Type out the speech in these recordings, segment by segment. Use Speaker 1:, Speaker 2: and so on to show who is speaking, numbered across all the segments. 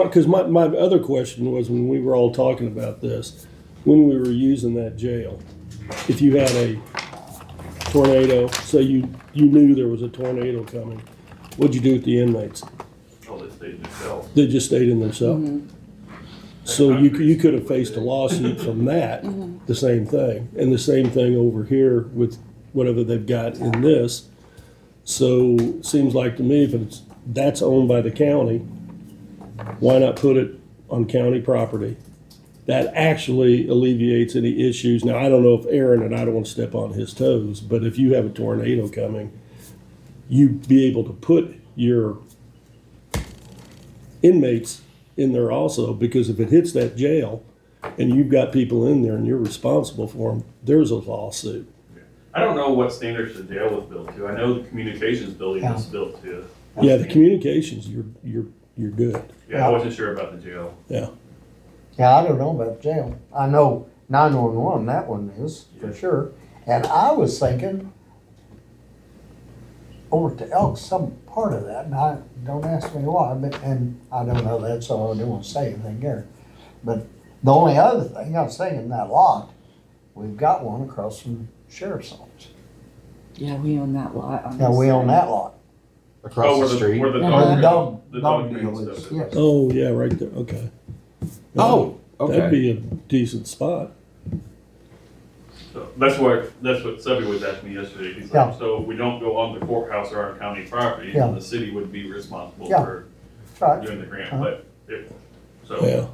Speaker 1: Because my, my other question was when we were all talking about this, when we were using that jail, if you had a tornado, say you, you knew there was a tornado coming, what'd you do with the inmates?
Speaker 2: Well, they stayed in the cell.
Speaker 1: They just stayed in themselves. So you, c- you could have faced a lawsuit from that, the same thing, and the same thing over here with whatever they've got in this. So it seems like to me, if it's, that's owned by the county, why not put it on county property? That actually alleviates any issues. Now, I don't know if Aaron, and I don't want to step on his toes, but if you have a tornado coming, you'd be able to put your inmates in there also, because if it hits that jail and you've got people in there and you're responsible for them, there's a lawsuit.
Speaker 2: I don't know what standards the jail was built to. I know the communications building was built to.
Speaker 1: Yeah, the communications, you're, you're, you're good,
Speaker 2: Yeah, I wasn't sure about the jail.
Speaker 1: yeah.
Speaker 3: Yeah, I don't know about jail. I know nine-one-one, that one is, for sure. And I was thinking over to Elk, some part of that, and I, don't ask me why, but, and I don't know that, so I don't wanna say anything there. But the only other thing, I was thinking that lot, we've got one across from Sheriff's Office.
Speaker 4: Yeah, we own that lot. on
Speaker 3: Now,
Speaker 4: this
Speaker 3: we own
Speaker 4: side.
Speaker 3: that lot.
Speaker 2: Oh,
Speaker 5: across
Speaker 2: where
Speaker 5: the street.
Speaker 2: Where the
Speaker 3: Where
Speaker 2: dog,
Speaker 3: the dog-
Speaker 2: the
Speaker 3: dog
Speaker 2: dog
Speaker 3: deal
Speaker 2: man
Speaker 3: is,
Speaker 2: stuff
Speaker 3: yes.
Speaker 2: is.
Speaker 1: Oh, yeah, right there, okay.
Speaker 5: oh,
Speaker 1: That'd
Speaker 5: okay.
Speaker 1: be a decent spot.
Speaker 2: So That's what, that's what Subby was asking me yesterday. He's
Speaker 3: Yeah.
Speaker 2: like, so we don't go on the courthouse or on county property,
Speaker 3: Yeah.
Speaker 2: and the city would be responsible
Speaker 3: Yeah.
Speaker 2: for
Speaker 3: Right.
Speaker 2: doing the grant,
Speaker 3: Uh-huh.
Speaker 2: but it, so.
Speaker 1: Yeah,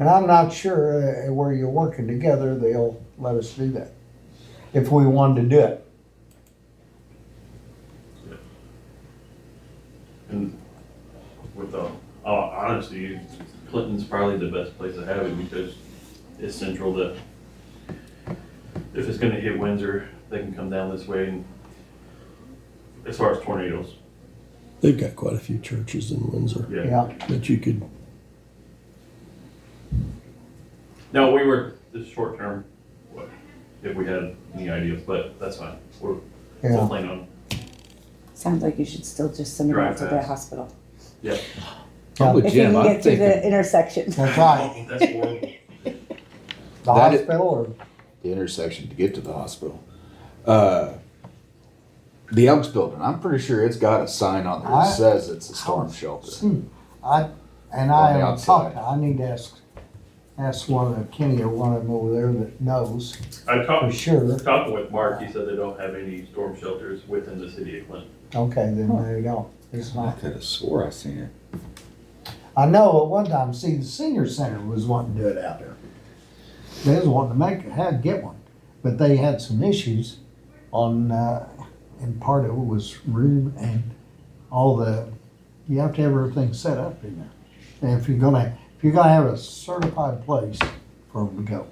Speaker 3: And I'm not sure uh, where you're working together, they'll let us do that, if we wanted to do it.
Speaker 2: And with the, uh, honesty, Clinton's probably the best place to have it because it's central to, if it's gonna hit Windsor, they can come down this way and, as far as tornadoes,
Speaker 1: they've got quite a few churches in Windsor
Speaker 2: yeah.
Speaker 3: Yeah,
Speaker 1: that you could,
Speaker 2: Now, we were, this is short term, what, if we had any ideas, but that's fine. We're still
Speaker 3: yeah.
Speaker 2: planning on,
Speaker 4: Sounds like you should still just send it out
Speaker 2: Drive
Speaker 4: to the
Speaker 2: fast.
Speaker 4: hospital.
Speaker 5: I'm with
Speaker 4: If you
Speaker 5: Jim.
Speaker 4: can
Speaker 5: I'm
Speaker 4: get to
Speaker 5: thinking
Speaker 4: the intersection.
Speaker 3: That's right.
Speaker 2: that's horrible.
Speaker 3: The
Speaker 5: That is-
Speaker 3: hospital or
Speaker 5: the intersection to get to the hospital. Uh, the Elks building. I'm pretty sure it's got a sign on there that
Speaker 3: I-
Speaker 5: says it's a storm shelter.
Speaker 3: Hmm, I, and
Speaker 5: On the
Speaker 3: I haven't
Speaker 5: outside.
Speaker 3: talked, I need to ask, ask one of Kenny or one of them over there that knows
Speaker 2: I
Speaker 3: for
Speaker 2: talked,
Speaker 3: sure.
Speaker 2: talked with Mark, he said they don't have any storm shelters within the city of Clinton.
Speaker 3: Okay, then there you go. It's not,
Speaker 5: could have swore I seen it.
Speaker 3: I know at one time, see, the senior center was wanting to do it out there. They was wanting to make, had, get one, but they had some issues on, uh, and part of it was room and all the, you have to have everything set up in there. And if you're gonna, if you're gonna have a certified place for them to go.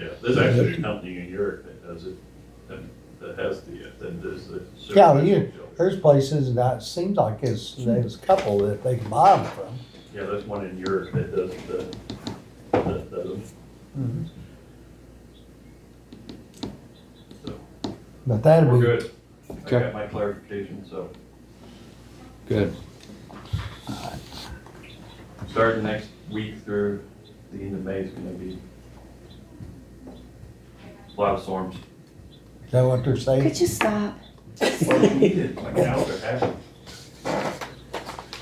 Speaker 2: Yeah, there's actually a company in Europe that does it, that, that has the, that does the.
Speaker 3: Yeah, well, you-
Speaker 2: service.
Speaker 3: There's places that it seems like it's, there's a couple that they can buy them from.
Speaker 2: Yeah, there's one in Europe that does the, that does them. So,
Speaker 3: But that'd
Speaker 2: we're
Speaker 3: be,
Speaker 2: good. I
Speaker 5: Okay.
Speaker 2: got my clarification, so
Speaker 5: Good.
Speaker 2: starting next week through the end of May is gonna be a lot of storms.
Speaker 3: is that what they're saying?
Speaker 4: Could you stop?
Speaker 2: Like an hour and a half.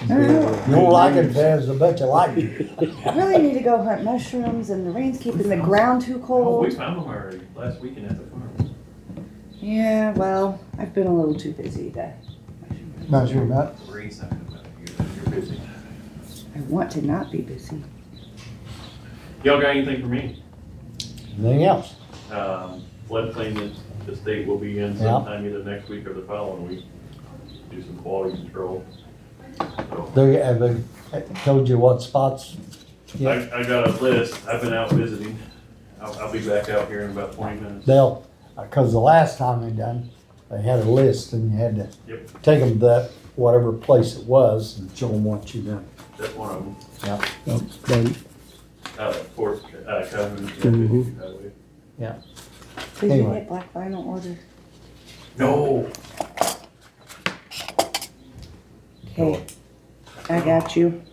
Speaker 4: I don't
Speaker 3: You don't like it, there's a bunch of like it.
Speaker 4: know. I really need to go hunt mushrooms and the rain's keeping the ground too
Speaker 2: Oh, we
Speaker 4: cold.
Speaker 2: found them already last weekend at the farm.
Speaker 4: Yeah, well, I've been a little too busy today.
Speaker 3: Not sure about,
Speaker 2: The rain's not coming out. You're- You're busy.
Speaker 4: I want to not be busy.
Speaker 2: Y'all got anything for me?
Speaker 3: anything else?
Speaker 2: Um, floodplain that the state will be in
Speaker 3: Yeah.
Speaker 2: sometime either next week or the following week. Do some quality control. So,
Speaker 3: They haven't told you what spots? Yeah,
Speaker 2: I, I got a list. I've been out visiting. I'll, I'll be back out here in about twenty minutes.
Speaker 3: they'll, because the last time they done, they had a list and you had to
Speaker 2: Yep.
Speaker 3: take them to that, whatever place it was and show them what you done.
Speaker 2: That's one of them.
Speaker 1: uh, but
Speaker 2: Out of Fort, uh, Coven,
Speaker 1: Mhm.
Speaker 2: Highway.
Speaker 4: Did you
Speaker 3: Anyway.
Speaker 4: get black vinyl order?
Speaker 2: No,
Speaker 4: Okay. I got you.